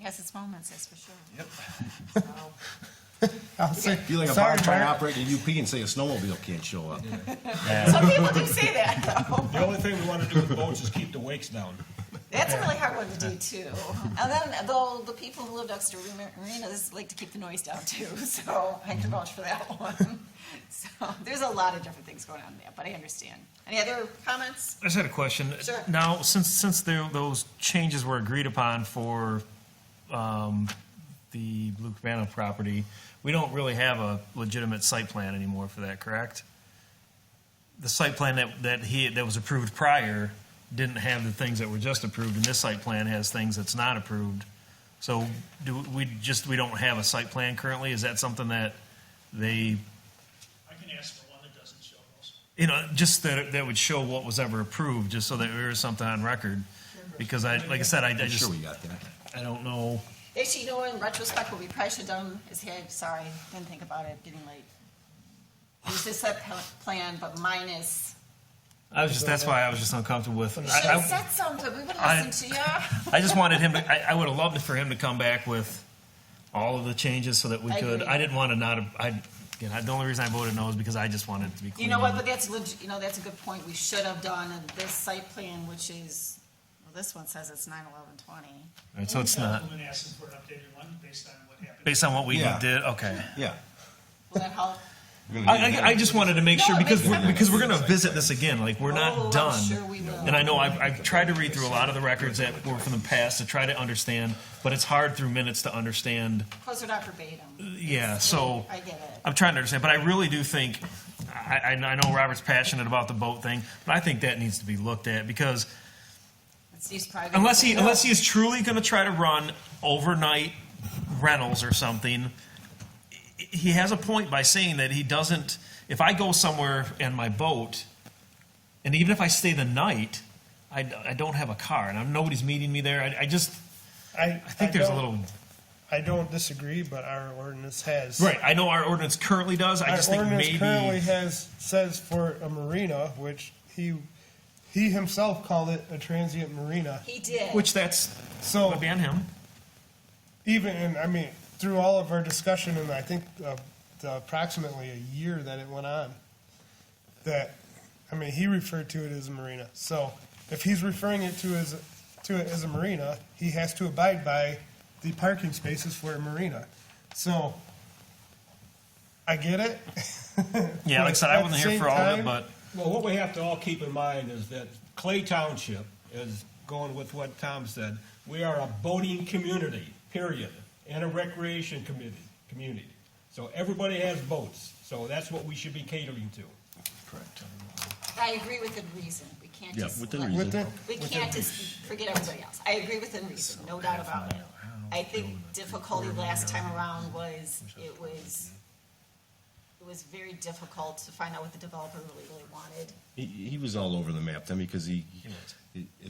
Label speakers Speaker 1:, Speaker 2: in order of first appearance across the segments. Speaker 1: has its moments, that's for sure.
Speaker 2: Yep.
Speaker 3: I'll say,
Speaker 4: Be like a
Speaker 3: sorry,
Speaker 4: box truck
Speaker 3: Mark.
Speaker 4: operator in UP and say a snowmobile can't show up.
Speaker 1: Some people do say that, though.
Speaker 2: The only thing we want to do with boats is keep the wakes down.
Speaker 1: That's a really hard one to do, too. And then, though, the people who live next to Mar- marinas like to keep the noise down, too, so I can vouch for that one. So, there's a lot of different things going on there, but I understand. Any other comments?
Speaker 5: I just had a question.
Speaker 1: Sure.
Speaker 5: Now, since, since there, those changes were agreed upon for, um, the Blue Cabana property, we don't really have a legitimate site plan anymore for that, correct? The site plan that, that he, that was approved prior didn't have the things that were just approved, and this site plan has things that's not approved. So do we just, we don't have a site plan currently? Is that something that they
Speaker 6: I can ask for one that doesn't show those.
Speaker 5: you know, just that, that would show what was ever approved, just so that there was something on record. Because I, like I said, I, I
Speaker 4: I'm sure
Speaker 5: just,
Speaker 4: we got that.
Speaker 5: I don't know.
Speaker 1: Actually, you know, E in retrospect, what we probably should have done is, hey, sorry, didn't think about it, getting late. Use this set pl- plan, but minus,
Speaker 5: I was just, that's why I was just uncomfortable with.
Speaker 1: we
Speaker 5: I-
Speaker 1: should have
Speaker 5: I,
Speaker 1: said something, we would
Speaker 5: I-
Speaker 1: have listened to you.
Speaker 5: I just wanted him to, I, I would have loved for him to come back with all of the changes so that we
Speaker 1: I
Speaker 5: could,
Speaker 1: agree.
Speaker 5: I didn't want to not, I, again, I- the only reason I voted no is because I just wanted it to be clean.
Speaker 1: You know what, but that's legit, you know, that's a good point, we should have done in this site plan, which is, well, this one says it's nine eleven twenty.
Speaker 5: All right, So it's not,
Speaker 6: I'm gonna ask them for an updated one based on what happened.
Speaker 5: based on what we
Speaker 4: Yeah.
Speaker 5: did, okay.
Speaker 4: Yeah.
Speaker 1: Will that help?
Speaker 5: I, I, I just wanted to make
Speaker 1: No,
Speaker 5: sure
Speaker 1: it
Speaker 5: because,
Speaker 1: makes sense.
Speaker 5: because we're gonna visit this again, like, we're
Speaker 1: Oh, I'm
Speaker 5: not done.
Speaker 1: sure we will.
Speaker 5: And I know I've, I've tried to read through a lot of the records that were from the past to try to understand, but it's hard through minutes to understand,
Speaker 1: Close it up verbatim.
Speaker 5: yeah, so.
Speaker 1: I get it.
Speaker 5: I'm trying to understand, but I really do think, I, I I know Robert's passionate about the boat thing, but I think that needs to be looked at because
Speaker 1: It's Steve's private.
Speaker 5: uh, unless he, unless he is truly gonna try to run overnight rentals or something, he has a point by saying that he doesn't. If I go somewhere in my boat, and even if I stay the night, I, I don't have a car, and I'm, nobody's meeting me there. I, I just
Speaker 7: I,
Speaker 5: I think there's a
Speaker 7: don't-
Speaker 5: little
Speaker 7: I don't disagree, but our ordinance has.
Speaker 5: right. I know our ordinance currently does. I
Speaker 7: Our
Speaker 5: just think
Speaker 7: ordinance
Speaker 5: maybe
Speaker 7: currently has, says for a marina, which he, he himself called it a transient marina.
Speaker 1: He did.
Speaker 5: which that's
Speaker 7: So
Speaker 5: would be on him.
Speaker 7: even, and I mean, through all of our discussion and I think uh, the approximately a year that it went on, that, I mean, he referred to it as a marina. So if he's referring it to as, to it as a marina, he has to abide by the parking spaces for a marina. So I get it.
Speaker 5: Yeah, like I said,
Speaker 7: At
Speaker 5: I
Speaker 7: the
Speaker 5: wasn't here
Speaker 7: same
Speaker 5: for all of
Speaker 7: time-
Speaker 5: it, but
Speaker 2: Well, what we have to all keep in mind is that Clay Township is going with what Tom said. We are a boating community, period, and a recreation community, community. So everybody has boats, so that's what we should be catering to.
Speaker 4: Correct.
Speaker 1: I agree within reason, we can't
Speaker 4: Yeah,
Speaker 1: just.
Speaker 4: within
Speaker 1: let-
Speaker 4: reason.
Speaker 7: Within-
Speaker 1: We can't just forget everybody else. I agree within reason, no doubt about it. I think difficulty last time around was, it was, it was very difficult to find out what the developer really, really wanted.
Speaker 4: He, he was all over the map then because he, he-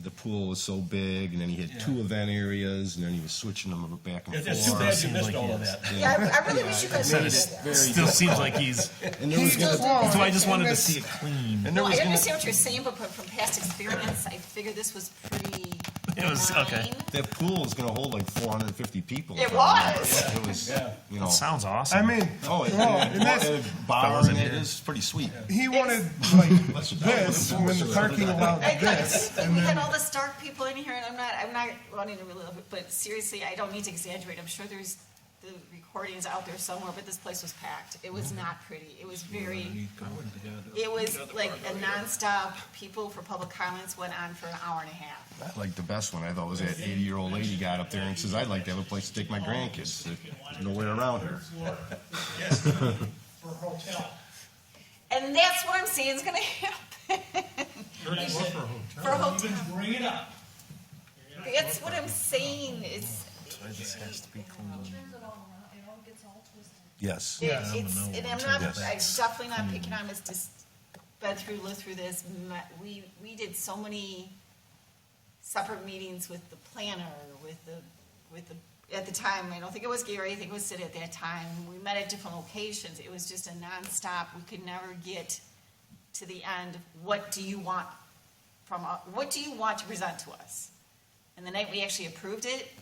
Speaker 4: the pool was so big and then he had two event areas and then he was switching them back and
Speaker 2: It's it's too bad
Speaker 4: forth.
Speaker 2: you missed
Speaker 5: like
Speaker 2: all of
Speaker 5: yes.
Speaker 2: that.
Speaker 1: Yeah, I- I really wish you guys would have done that.
Speaker 5: still seems like he's.
Speaker 4: And there was gonna,
Speaker 5: So I just wanted to see it clean.
Speaker 4: and there
Speaker 1: No, I
Speaker 4: was gonna,
Speaker 1: understand what you're saying, but from- from past experience, I figured this was pretty
Speaker 5: It was- okay.
Speaker 1: benign.
Speaker 4: that pool is gonna hold like four hundred and fifty people.
Speaker 1: It
Speaker 4: if I remember.
Speaker 1: was.
Speaker 4: It was, you know.
Speaker 5: Sounds awesome.
Speaker 7: I mean,
Speaker 4: Oh, it,
Speaker 7: Well,
Speaker 4: it,
Speaker 7: and that's-
Speaker 4: it, bar
Speaker 5: Fellas in
Speaker 4: and it
Speaker 5: here.
Speaker 4: is pretty sweet.
Speaker 7: he wanted like this when the parking allowed
Speaker 1: I know, you
Speaker 7: this.
Speaker 1: think we had all the dark people in here, and I'm not, I'm not wanting to relive it, but seriously, I don't need to exaggerate, I'm sure there's the recordings out there somewhere, but this place was packed, it
Speaker 5: Mm-hmm.
Speaker 1: was not pretty, it was very, it was like a nonstop, people for public comments went on for an hour and a half.
Speaker 4: Like the best one I thought was that eighty-year-old lady got up there and says, "I'd like to have a place to take my grandkids. There's nowhere around here."
Speaker 6: Floor, yes, for hotel.
Speaker 1: And that's what I'm saying is gonna happen, for a hotel,
Speaker 6: Even bring it up.
Speaker 1: that's what I'm saying, it's,
Speaker 8: It turns it all around, it all gets all twisted.
Speaker 4: Yes.
Speaker 1: It's,
Speaker 5: know
Speaker 1: and I'm not, I'm definitely not picking on Ms. Dis, been through, lived through this, My- we, we did so many separate meetings with the planner, with the, with the, at the time, I don't think it was Gary, I think it was Sid at that time, we met at different locations, it was just a nonstop, we could never get to the end, what do you uh, want from, u- what do you want to present to us? And the night we actually approved it,